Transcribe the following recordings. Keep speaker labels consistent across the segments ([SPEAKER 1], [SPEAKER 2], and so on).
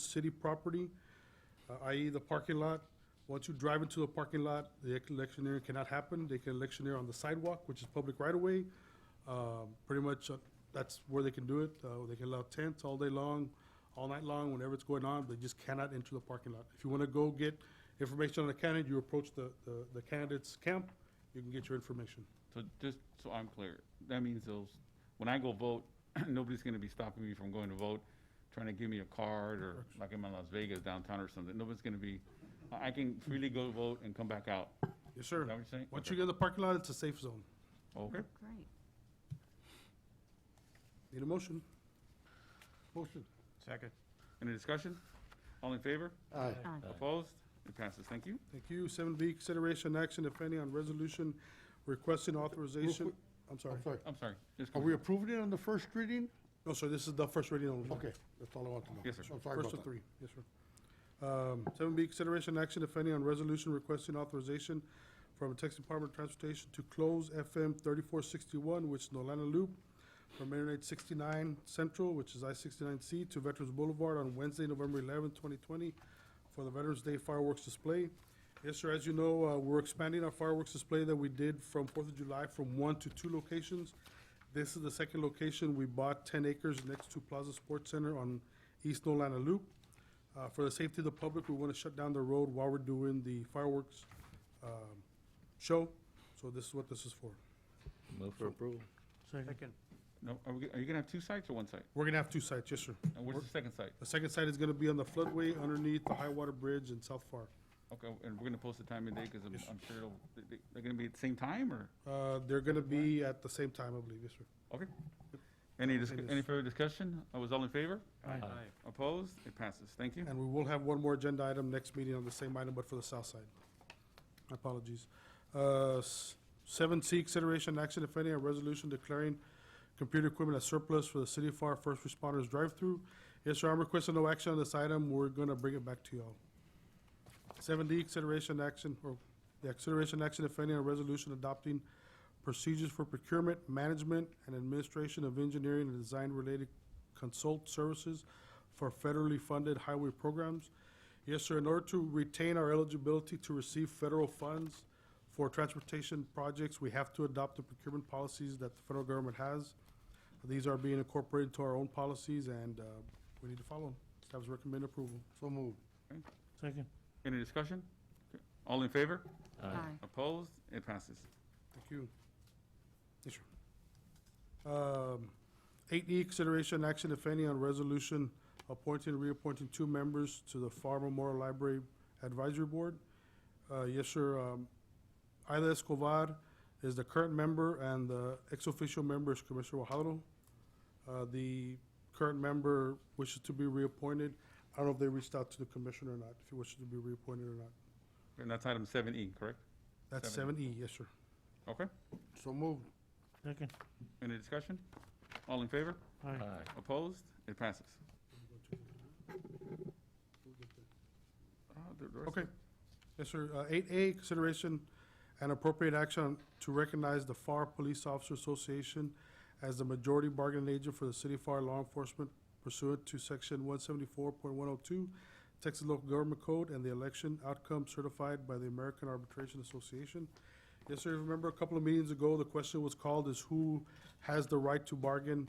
[SPEAKER 1] city property, uh, i.e. the parking lot. Once you drive into the parking lot, the electioneering cannot happen. They can electioneer on the sidewalk, which is public right-of-way. Uh, Pretty much, uh, that's where they can do it. Uh, They can allow tents all day long, all night long, whenever it's going on. They just cannot enter the parking lot. If you want to go get information on the candidate, you approach the, the- the candidate's camp, you can get your information.
[SPEAKER 2] So just so I'm clear, that means those, when I go vote, nobody's gonna be stopping me from going to vote, trying to give me a card or like I'm in Las Vegas downtown or something. Nobody's gonna be, I I can freely go vote and come back out.
[SPEAKER 1] Yes, sir.
[SPEAKER 2] Is that what you're saying?
[SPEAKER 1] Once
[SPEAKER 2] Okay.
[SPEAKER 1] you get in the parking lot, it's a safe zone.
[SPEAKER 2] Okay.
[SPEAKER 3] Great.
[SPEAKER 1] Need a motion? Motion.
[SPEAKER 4] Second.
[SPEAKER 2] Any discussion? All in favor?
[SPEAKER 5] Aye.
[SPEAKER 3] Aye.
[SPEAKER 2] Opposed? It passes. Thank you.
[SPEAKER 1] Thank you. Seven B, consideration action, if any, on resolution requesting authorization.
[SPEAKER 5] quick.
[SPEAKER 1] I'm sorry.
[SPEAKER 5] I'm sorry.
[SPEAKER 2] I'm sorry. Just
[SPEAKER 5] Are
[SPEAKER 2] go.
[SPEAKER 5] we approving it on the first reading?
[SPEAKER 1] No, sir, this is the first reading only.
[SPEAKER 5] Okay, that's all I want to know.
[SPEAKER 2] Yes, sir.
[SPEAKER 5] I'm sorry
[SPEAKER 1] First of
[SPEAKER 5] about that.
[SPEAKER 1] three, yes, sir. Um, Seven B, consideration action, if any, on resolution requesting authorization from Texas Department of Transportation to close FM thirty-four sixty-one, which is Nolana Loop, from Interstate sixty-nine Central, which is I sixty-nine C, to Veterans Boulevard on Wednesday, November eleventh, twenty twenty, for the Veterans Day fireworks display. Yes, sir, as you know, uh, we're expanding our fireworks display that we did from Fourth of July from one to two locations. This is the second location. We bought ten acres next to Plaza Sports Center on East Nolana Loop. Uh, for the safety of the public, we want to shut down the road while we're doing the fireworks, um, show. So this is what this is for.
[SPEAKER 6] Move for approval.
[SPEAKER 4] Second.
[SPEAKER 2] No, are we, are you gonna have two sites or one site?
[SPEAKER 1] We're gonna have two sites, yes, sir.
[SPEAKER 2] And where's the second site?
[SPEAKER 1] The second site is gonna be on the floodway underneath the high water bridge in South Far.
[SPEAKER 2] Okay, and we're gonna post the time and date, cause I'm, I'm sure it'll, they- they- they're gonna be at the same time or?
[SPEAKER 1] Uh, they're gonna be at the same time, I believe, yes, sir.
[SPEAKER 2] Okay. Any, dis-
[SPEAKER 1] It
[SPEAKER 2] any
[SPEAKER 1] is.
[SPEAKER 2] further discussion? I was all in favor?
[SPEAKER 4] Aye.
[SPEAKER 2] Opposed? It passes. Thank you.
[SPEAKER 1] And we will have one more agenda item next meeting on the same item, but for the south side. Apologies. Uh, s- Seven C, consideration action, if any, on resolution declaring computer equipment as surplus for the City of FAR First Responders Drive-Through. Yes, sir, I'm requesting no action on this item. We're gonna bring it back to y'all. Seven D, consideration action, or, yeah, consideration action, if any, on resolution adopting procedures for procurement, management, and administration of engineering and design-related consult services for federally funded highway programs. Yes, sir, in order to retain our eligibility to receive federal funds for transportation projects, we have to adopt the procurement policies that the federal government has. These are being incorporated to our own policies, and uh, we need to follow them. Staff's recommend approval.
[SPEAKER 5] So moved.
[SPEAKER 4] Second.
[SPEAKER 2] Any discussion? Okay. All in favor?
[SPEAKER 3] Aye.
[SPEAKER 2] Opposed? It passes.
[SPEAKER 1] Thank you. Yes, sir. Eight E, consideration action, if any, on resolution appointing, reappointing two members to the Far Memorial Library Advisory Board. Uh, Yes, sir. um, Ida Escobar is the current member, and the ex-official member is Commissioner Wajado. Uh, The current member wishes to be reappointed. I don't know if they reached out to the commissioner or not, if he wishes to be reappointed or not.
[SPEAKER 2] And that's item seven E, correct?
[SPEAKER 1] That's
[SPEAKER 2] Seven.
[SPEAKER 1] seven E, yes, sir.
[SPEAKER 2] Okay.
[SPEAKER 5] So moved.
[SPEAKER 4] Second.
[SPEAKER 2] Any discussion? All in favor?
[SPEAKER 4] Aye.
[SPEAKER 2] Opposed? It passes. Uh, the- the rest
[SPEAKER 1] Okay.
[SPEAKER 2] of-
[SPEAKER 1] Yes, sir. Uh, Eight A, consideration and appropriate action to recognize the FAR Police Officer Association as the majority bargaining agent for the city of FAR law enforcement pursuant to section one seventy-four point one oh two, Texas Local Government Code, and the election outcome certified by the American Arbitration Association. Yes, sir. Remember a couple of meetings ago, the question was called is who has the right to bargain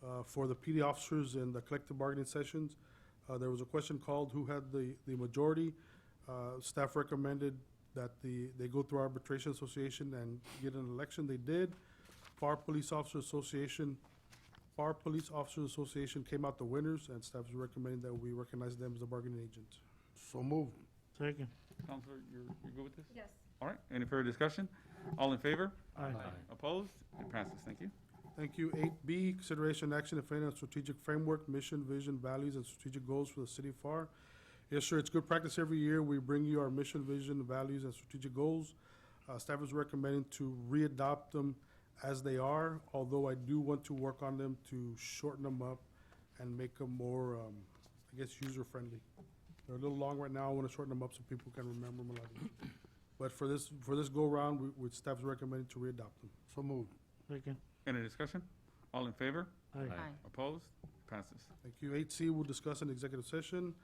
[SPEAKER 1] uh, for the PD officers in the collective bargaining sessions? Uh, There was a question called who had the, the majority. Uh, Staff recommended that the, they go through arbitration association and get an election. They did. FAR Police Officer Association, FAR Police Officers Association came out the winners, and staff is recommending that we recognize them as the bargaining agent.
[SPEAKER 5] So moved.
[SPEAKER 4] Second.
[SPEAKER 2] Counselor, you're, you're good with this?
[SPEAKER 3] Yes.
[SPEAKER 2] All right. Any further discussion? All in favor?
[SPEAKER 4] Aye.
[SPEAKER 2] Opposed? It passes. Thank you.
[SPEAKER 1] Thank you. Eight B, consideration action, if any, on strategic framework, mission, vision, values, and strategic goals for the city of FAR. Yes, sir, it's good practice every year. We bring you our mission, vision, values, and strategic goals. Uh, staff is recommending to re-adopt them as they are, although I do want to work on them to shorten them up and make them more, um, I guess, user-friendly. They're a little long right now. I want to shorten them up so people can remember them a lot. But for this, for this go-around, we, we, staff is recommending to re-adopt them.
[SPEAKER 5] So moved.
[SPEAKER 4] Second.
[SPEAKER 2] Any discussion? All in favor?
[SPEAKER 4] Aye.
[SPEAKER 3] Aye.
[SPEAKER 2] Opposed? Passes.
[SPEAKER 1] Thank you. Eight C, we'll discuss in executive session.